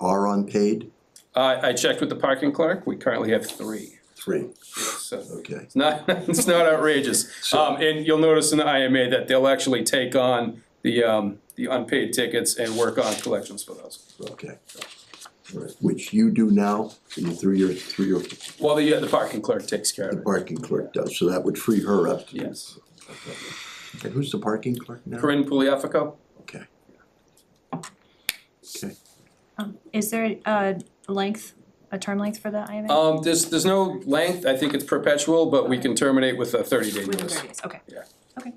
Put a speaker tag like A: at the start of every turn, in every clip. A: are unpaid?
B: I, I checked with the parking clerk, we currently have three,
A: Three,
B: so.
A: okay.
B: It's not, it's not outrageous. Um, and you'll notice in the IMA that they'll actually take on the, um, the unpaid tickets and work on collections for those.
A: Okay. Right, Which you do now, and through your, through your,
B: Well, the, uh, the parking clerk takes care
A: the
B: of it,
A: parking clerk does, so that would free her up. to-
B: yes.
A: And who's the parking clerk now?
B: Corinne Pugliafico?
A: Okay. Okay,
C: Um, is there a length, a term length for the IMA?
B: Um, there's, there's no length, I think it's perpetual, but we can terminate with a thirty day
C: Within
B: notice.
C: thirty days, okay.
B: Yeah.
C: Okay.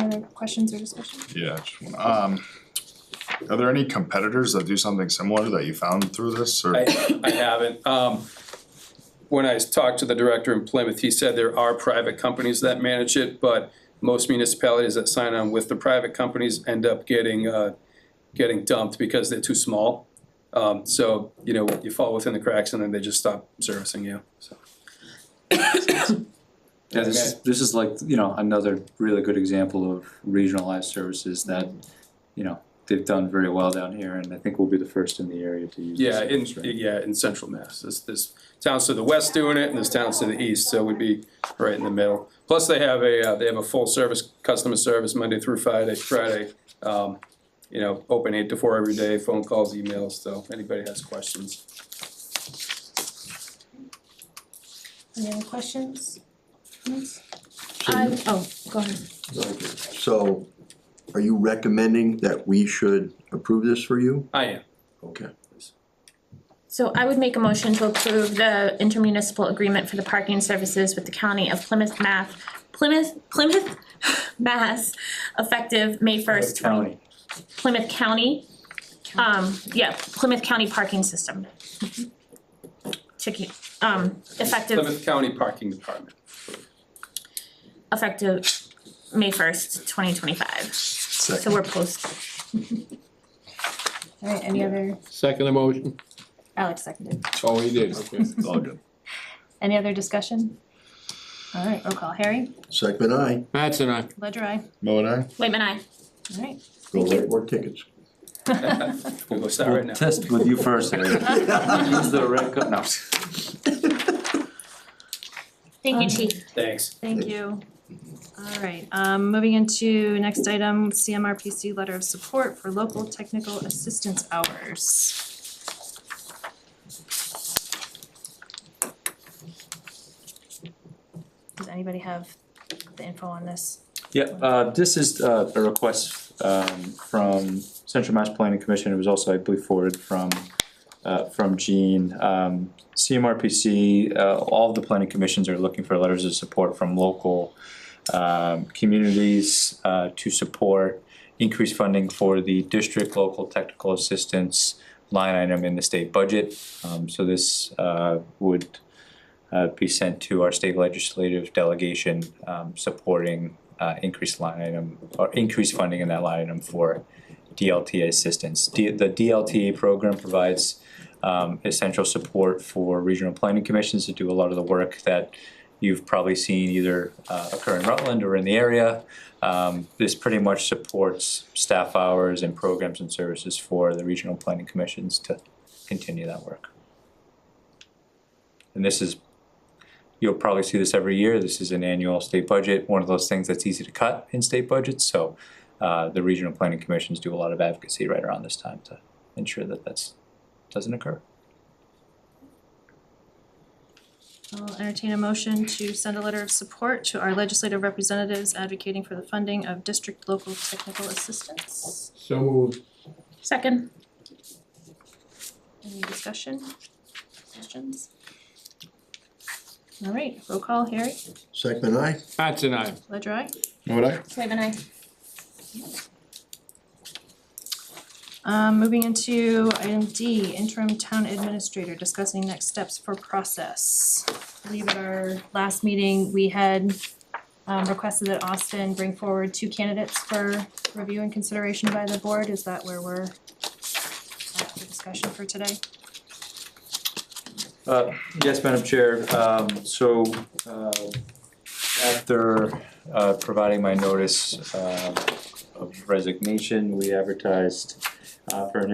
C: Any other questions or discussion?
D: Yeah, I just wanna- um, are there any competitors that do something similar that you found through this or?
B: I, I haven't. Um, when I talked to the director in Plymouth, he said there are private companies that manage it, but most municipalities that sign on with the private companies end up getting, uh, getting dumped because they're too small. Um, so, you know, you fall within the cracks and then they just stop servicing you, so.
E: Yeah, this is, this is like, you know, another really good example of regionalized services that, you know, they've done very well down here, and I think we'll be the first in the area to use this
B: Yeah, in,
E: service, right?
B: yeah, in central Mass. There's, there's towns to the west doing it and there's towns to the east, so we'd be right in the middle. Plus, they have a, uh, they have a full service, customer service Monday through Friday, Friday. Um, you know, open eight to four every day, phone calls, emails, so if anybody has questions.
C: Any other questions? Comments?
A: So-
C: Um, oh, go ahead.
A: okay. So are you recommending that we should approve this for you?
B: I am.
A: Okay.
F: So I would make a motion to approve the intermunicipal agreement for the parking services with the county of Plymouth, Math, Plymouth, Plymouth, Mass, effective May first, twenty,
E: County.
F: Plymouth County. Um, yeah, Plymouth County Parking System. Checking, um, effective,
B: Plymouth County Parking Department.
F: effective May first, twenty twenty-five, so we're post,
C: Alright, any other,
G: Second emotion.
C: Alex seconded.
G: Oh, he did, okay.
D: It's all good.
C: Any other discussion? Alright, roll call. Harry,
A: Second I,
G: Mattson, aye.
C: ledger I.
D: Mo and I?
F: wait a minute,
C: Alright.
A: go right more tickets.
B: We'll go start right
E: We'll
B: now.
E: test with you first, Eric. Use the red co- no.
F: thank you, chief.
B: Thanks.
C: Thank you. Alright, um, moving into next item, CMRPC letter of support for local technical assistance hours. Does anybody have the info on this?
E: Yeah, uh, this is uh, a request um, from Central Mass Planning Commission, it was also, I believe, forwarded from, uh, from Gene. Um, CMRPC, uh, all of the planning commissions are looking for letters of support from local um, communities uh, to support increased funding for the district local technical assistance line item in the state budget. Um, So this uh, would uh, be sent to our state legislative delegation um, supporting uh, increased line item or increased funding in that line item for DLTA assistance. D- the DLTA program provides um, essential support for regional planning commissions to do a lot of the work that you've probably seen either uh, occur in Rutland or in the area. Um, this pretty much supports staff hours and programs and services for the regional planning commissions to continue that work. And this is, you'll probably see this every year, this is an annual state budget, one of those things that's easy to cut in state budgets, so uh, the regional planning commissions do a lot of advocacy right around this time to ensure that that's, doesn't occur.
C: I'll entertain a motion to send a letter of support to our legislative representatives advocating for the funding of district local technical assistance.
G: So moved.
F: Second,
C: Any discussion, questions? All right, roll call, Harry,
A: Second I,
G: Mattson, aye.
C: ledger I.
D: Mo and I?
F: wait a minute,
C: Um, moving into item D, interim town administrator discussing next steps for process. I believe at our last meeting, we had um requested that Austin bring forward two candidates for review and consideration by the board, is that where we're at for discussion for today?
E: Uh, yes, Madam Chair, um, so, uh, after, uh, providing my notice, um, of resignation, we advertised, uh, for an